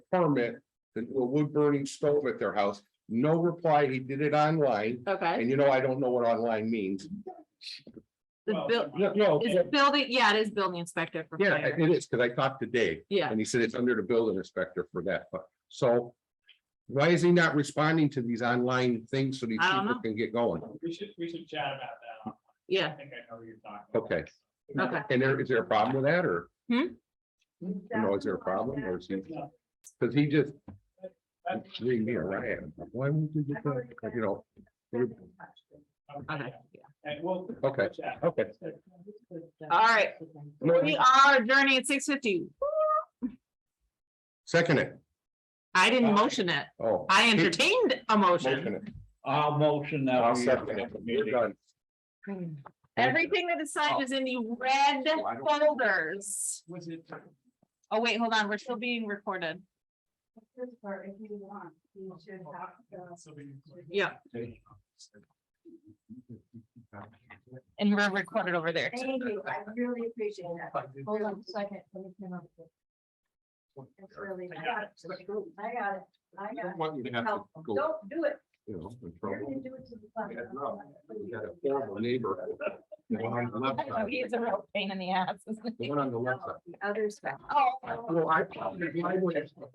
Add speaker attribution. Speaker 1: permit to do a wood burning stove at their house. No reply. He did it online.
Speaker 2: Okay,
Speaker 1: And you know, I don't know what online means.
Speaker 2: the
Speaker 3: Well,
Speaker 2: bill,
Speaker 1: No, no,
Speaker 2: it's building, yeah, it is building inspector for
Speaker 1: yeah,
Speaker 2: fire,
Speaker 1: it is, because I talked to Dave.
Speaker 2: yeah,
Speaker 1: And he said it's under the building inspector for that, but so. Why is he not responding to these online things so these
Speaker 2: I don't
Speaker 1: people
Speaker 2: know.
Speaker 1: can get going?
Speaker 3: We should, we should chat about that.
Speaker 2: yeah,
Speaker 3: I think I know what you're talking about.
Speaker 1: Okay.
Speaker 2: okay.
Speaker 1: And there, is there a problem with that or?
Speaker 2: Hmm?
Speaker 1: You know, is there a problem or is he, cause he just,
Speaker 3: That's-
Speaker 1: leave me around. Why won't you get that? Like, You know,
Speaker 2: Okay,
Speaker 3: And we'll.
Speaker 1: Okay. okay.
Speaker 2: all right, we are adjourning at six fifty.
Speaker 1: Second it.
Speaker 2: I didn't motion it,
Speaker 1: Oh.
Speaker 2: I entertained a motion.
Speaker 1: Motion it.
Speaker 3: I'll motion
Speaker 1: I'll second it. We're done.
Speaker 2: Hmm. Everything that is signed is in the red
Speaker 1: Oh,
Speaker 2: folders.
Speaker 3: Was it?
Speaker 2: Oh, wait, hold on, we're still being recorded. Yeah. And we're recorded over there. too.
Speaker 4: Thank you, I really appreciate that. Hold on a second, let me come up with it. It's really, I got it, I got it, I
Speaker 1: I
Speaker 4: got
Speaker 1: don't
Speaker 4: it.
Speaker 1: want you to have to
Speaker 4: Help,
Speaker 1: go,
Speaker 4: don't do it,
Speaker 1: you know, in
Speaker 4: you're gonna
Speaker 1: trouble.
Speaker 4: do it to the. fund.
Speaker 1: Yeah, no, We got a horrible neighbor. The one on the left
Speaker 2: I know,
Speaker 1: side,
Speaker 2: He is a real pain in the ass. isn't he?
Speaker 1: the one on the left side.
Speaker 4: Oh. The Others. back.
Speaker 2: Oh.
Speaker 1: Well, I.